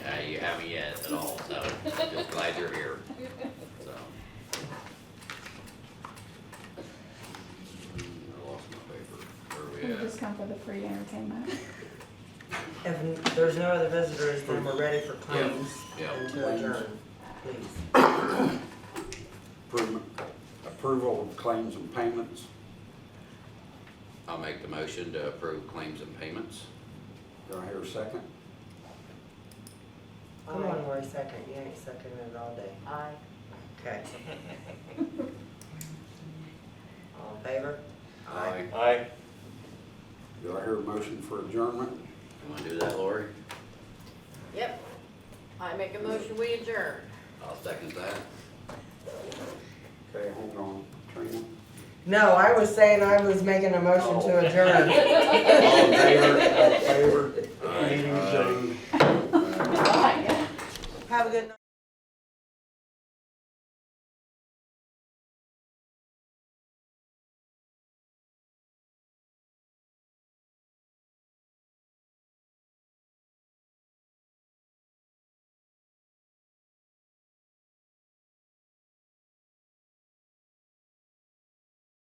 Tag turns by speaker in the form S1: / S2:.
S1: at me yet at all, so just glad you're here, so. Hmm, I lost my paper. Where
S2: We
S1: are we at?
S2: just come for the free entertainment.
S3: If there's no other visitors, then we're ready for claims
S1: Yeah, yeah.
S3: and to adjourn, please.
S4: Approval- Approval of claims and payments.
S1: I'll make the motion to approve claims and payments.
S4: Do I hear a second?
S3: Come on, Lori, second, you ain't seconding it all day.
S5: Aye.
S3: Okay. All in favor?
S6: Aye.
S4: Do I hear a motion for adjournment?
S1: You wanna do that, Lori?
S5: Yep. I make a motion, we adjourn.
S1: I'll second that.
S4: Okay, hold on, Trina.
S3: No, I was saying I was making a motion to adjourn.
S4: All in favor, all in favor? Meeting adjourned.
S2: Bye.
S3: Have a good night.